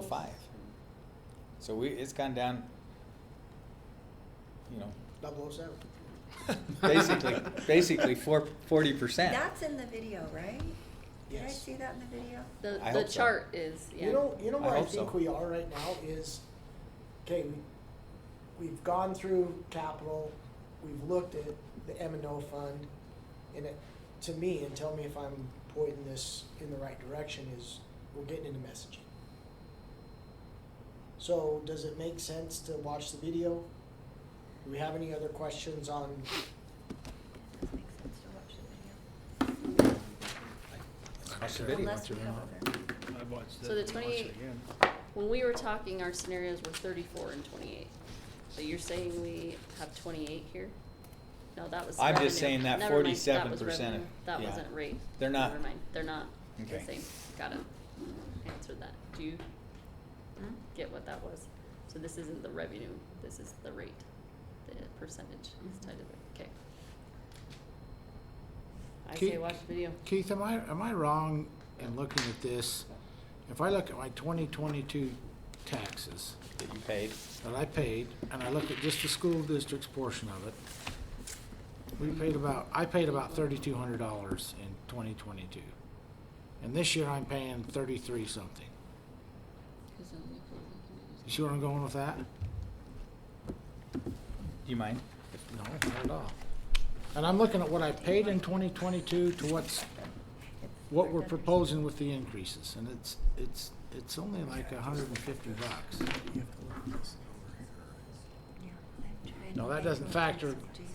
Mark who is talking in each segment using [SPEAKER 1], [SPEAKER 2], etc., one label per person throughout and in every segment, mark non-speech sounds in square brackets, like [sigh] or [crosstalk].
[SPEAKER 1] five. So we, it's gone down, you know,
[SPEAKER 2] Double oh seven.
[SPEAKER 3] [laughs]
[SPEAKER 1] basically, basically four, forty percent.
[SPEAKER 4] That's in the video, right? Did I
[SPEAKER 2] Yes.
[SPEAKER 4] see that in the video?
[SPEAKER 5] The,
[SPEAKER 1] I
[SPEAKER 5] the
[SPEAKER 1] hope so.
[SPEAKER 5] chart is, yeah.
[SPEAKER 2] You know, you know
[SPEAKER 1] I
[SPEAKER 2] where I
[SPEAKER 1] hope
[SPEAKER 2] think
[SPEAKER 1] so.
[SPEAKER 2] we are right now is, okay, we, we've gone through capital, we've looked at the M and O fund, and it, to me, and tell me if I'm pointing this in the right direction, is we're getting into messaging. So does it make sense to watch the video? Do we have any other questions on,
[SPEAKER 4] Does it make sense to watch the
[SPEAKER 1] Watch the video.
[SPEAKER 4] video? Unless we have other.
[SPEAKER 6] I watched
[SPEAKER 5] So the
[SPEAKER 6] it, watched
[SPEAKER 5] 28
[SPEAKER 6] it again.
[SPEAKER 5] When we were talking, our scenarios were thirty-four and twenty-eight. So you're saying we have twenty-eight here? No, that was
[SPEAKER 1] I'm just
[SPEAKER 5] revenue.
[SPEAKER 1] saying that
[SPEAKER 5] Never mind, that was
[SPEAKER 1] 47%
[SPEAKER 5] revenue. That
[SPEAKER 1] yeah.
[SPEAKER 5] wasn't rate.
[SPEAKER 1] They're not-
[SPEAKER 5] Never mind, they're not the
[SPEAKER 1] Okay.
[SPEAKER 5] same. Got it. Answered that. Do you
[SPEAKER 4] Hmm?
[SPEAKER 5] get what that was? So this isn't the revenue, this is the rate, the percentage is tied to the, okay. I say
[SPEAKER 3] Keith-
[SPEAKER 5] watch the video.
[SPEAKER 3] Keith, am I, am I wrong in looking at this? If I look at my twenty twenty-two taxes
[SPEAKER 1] That you paid.
[SPEAKER 3] that I paid, and I look at just the school district's portion of it, we paid about, I paid about thirty-two hundred dollars in twenty twenty-two. And this year I'm paying thirty-three something. You see where I'm going with that?
[SPEAKER 1] Do you mind?
[SPEAKER 3] No, not at all. And I'm looking at what I paid in twenty twenty-two to what's what we're proposing with the increases, and it's, it's, it's only like a hundred and fifty bucks.
[SPEAKER 4] Yeah, I'm trying
[SPEAKER 3] No,
[SPEAKER 4] to
[SPEAKER 3] that
[SPEAKER 4] think
[SPEAKER 3] doesn't
[SPEAKER 4] of
[SPEAKER 3] factor-
[SPEAKER 4] things, Jason.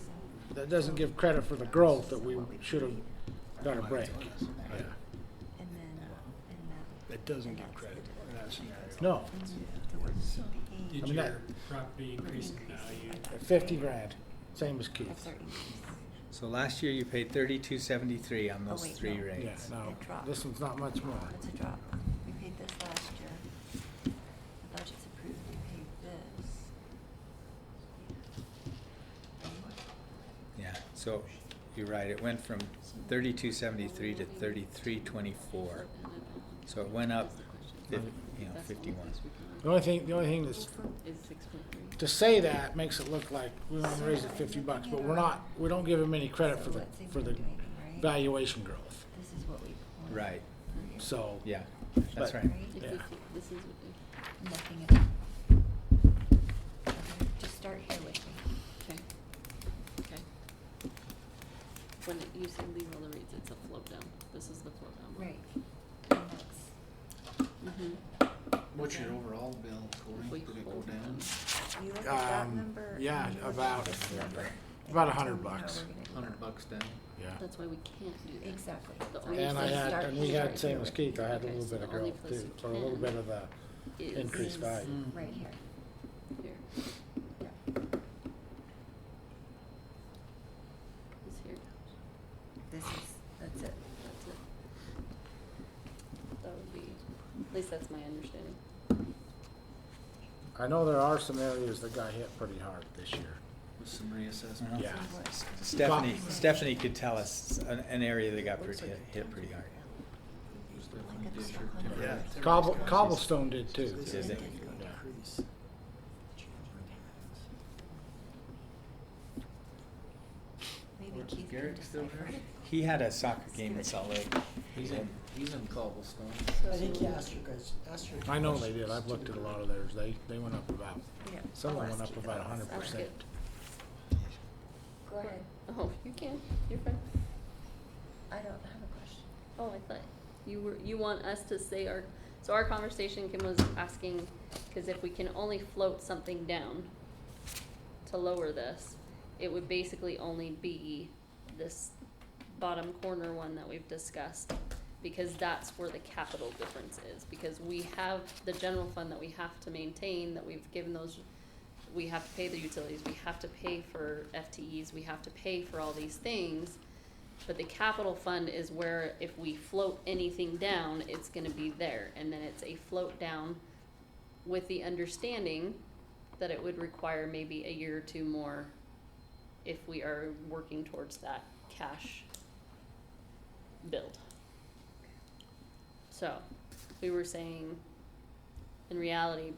[SPEAKER 3] That doesn't give credit for the growth that we should have got a break. Yeah.
[SPEAKER 4] And then, and that.
[SPEAKER 6] It doesn't
[SPEAKER 4] and
[SPEAKER 6] give
[SPEAKER 4] that's
[SPEAKER 6] credit
[SPEAKER 4] the-
[SPEAKER 6] in that scenario.
[SPEAKER 3] No,
[SPEAKER 4] and the word should be aim.
[SPEAKER 3] I
[SPEAKER 7] Did
[SPEAKER 3] mean, that-
[SPEAKER 7] your property increase in value?
[SPEAKER 3] fifty grand, same as
[SPEAKER 4] That's
[SPEAKER 3] Keith's.
[SPEAKER 4] our increase.
[SPEAKER 1] So last year you paid thirty-two seventy-three on
[SPEAKER 4] Oh,
[SPEAKER 1] those
[SPEAKER 4] wait,
[SPEAKER 1] three
[SPEAKER 4] no.
[SPEAKER 3] Yeah,
[SPEAKER 1] rates.
[SPEAKER 3] no, this one's not much more.
[SPEAKER 4] That's a drop. We paid this last year. The budget's approved, we paid this.
[SPEAKER 1] Yeah, so you're right, it went from thirty-two seventy-three to thirty-three twenty-four. So it went up fif- you know, fifty-one.
[SPEAKER 3] The only thing, the only thing that's,
[SPEAKER 5] Is six point three.
[SPEAKER 3] to say that makes it look like we only raised it fifty bucks, but we're not, we don't give them any credit for the, for the valuation growth.
[SPEAKER 4] This is what we. pulled
[SPEAKER 1] Right,
[SPEAKER 4] here,
[SPEAKER 3] So.
[SPEAKER 1] yeah, that's right.
[SPEAKER 3] But-
[SPEAKER 4] Right?
[SPEAKER 5] If
[SPEAKER 3] Yeah.
[SPEAKER 5] this, this is,
[SPEAKER 4] Looking at. Okay, Just start here with me.
[SPEAKER 5] Okay, okay. When it- you say leave all the reads, it's a float down, this is the float down.
[SPEAKER 4] Right. And that's,
[SPEAKER 5] Mm-hmm.
[SPEAKER 4] What's your
[SPEAKER 6] overall bill,
[SPEAKER 5] We hold them.
[SPEAKER 4] you look at that
[SPEAKER 3] Um,
[SPEAKER 4] number. and
[SPEAKER 3] yeah,
[SPEAKER 4] you look at
[SPEAKER 3] about-
[SPEAKER 4] this number, and
[SPEAKER 3] about
[SPEAKER 4] you
[SPEAKER 3] a
[SPEAKER 4] tell
[SPEAKER 3] hundred
[SPEAKER 4] me how
[SPEAKER 3] bucks.
[SPEAKER 4] we're gonna do it.
[SPEAKER 6] bucks down.
[SPEAKER 3] Yeah.
[SPEAKER 5] That's why we can't do that.
[SPEAKER 4] Exactly.
[SPEAKER 5] The
[SPEAKER 4] That's
[SPEAKER 5] only
[SPEAKER 3] And I
[SPEAKER 5] place-
[SPEAKER 3] had,
[SPEAKER 4] start
[SPEAKER 3] and we
[SPEAKER 4] here.
[SPEAKER 3] had, same as Keith, I had a
[SPEAKER 5] Okay,
[SPEAKER 3] little
[SPEAKER 5] so
[SPEAKER 3] bit of
[SPEAKER 5] the only
[SPEAKER 3] growth
[SPEAKER 5] place
[SPEAKER 3] too,
[SPEAKER 5] you
[SPEAKER 3] or a little
[SPEAKER 5] can
[SPEAKER 3] bit of the
[SPEAKER 5] is
[SPEAKER 3] increased
[SPEAKER 4] Is
[SPEAKER 3] value.
[SPEAKER 4] Right here.
[SPEAKER 5] Here,
[SPEAKER 4] Yeah.
[SPEAKER 5] is here,
[SPEAKER 4] This is, that's it.
[SPEAKER 5] that's it. That would be, at least that's my understanding.
[SPEAKER 3] I know there are some areas that got hit pretty hard this year.
[SPEAKER 6] With some reassessment.
[SPEAKER 1] Uh-huh.
[SPEAKER 3] Yeah.
[SPEAKER 4] So what-
[SPEAKER 1] Stephanie,
[SPEAKER 4] Got-
[SPEAKER 1] Stephanie could tell us an, an area that got pretty, hit pretty hard.
[SPEAKER 4] Like it's still under
[SPEAKER 6] Yeah.
[SPEAKER 4] there.
[SPEAKER 3] Cobble, cobblestone did too.
[SPEAKER 2] this
[SPEAKER 1] Is
[SPEAKER 2] is
[SPEAKER 1] it?
[SPEAKER 3] Yeah.
[SPEAKER 2] increase.
[SPEAKER 4] Maybe Keith can
[SPEAKER 6] Garrett still
[SPEAKER 4] decipher.
[SPEAKER 6] there?
[SPEAKER 1] He had a soccer game in Salt Lake.
[SPEAKER 6] He's in, he's in cobblestone.
[SPEAKER 2] I think you asked your guys, asked your.
[SPEAKER 3] I know they did, I've looked at a lot of theirs, they, they went up about,
[SPEAKER 4] Yeah,
[SPEAKER 3] some of
[SPEAKER 4] I'll
[SPEAKER 3] them went
[SPEAKER 4] ask
[SPEAKER 3] up
[SPEAKER 4] Keith
[SPEAKER 3] about
[SPEAKER 4] about
[SPEAKER 3] hundred
[SPEAKER 4] this.
[SPEAKER 3] percent.
[SPEAKER 4] Go ahead.
[SPEAKER 5] Oh, you can, you're fine.
[SPEAKER 4] I don't have a question.
[SPEAKER 5] Oh, I thought you were, you want us to say our, so our conversation Kim was asking, cause if we can only float something down to lower this, it would basically only be this bottom corner one that we've discussed, because that's where the capital difference is, because we have the general fund that we have to maintain, that we've given those, we have to pay the utilities, we have to pay for FTEs, we have to pay for all these things. But the capital fund is where if we float anything down, it's gonna be there, and then it's a float down with the understanding that it would require maybe a year or two more if we are working towards that cash build. So, we were saying in reality,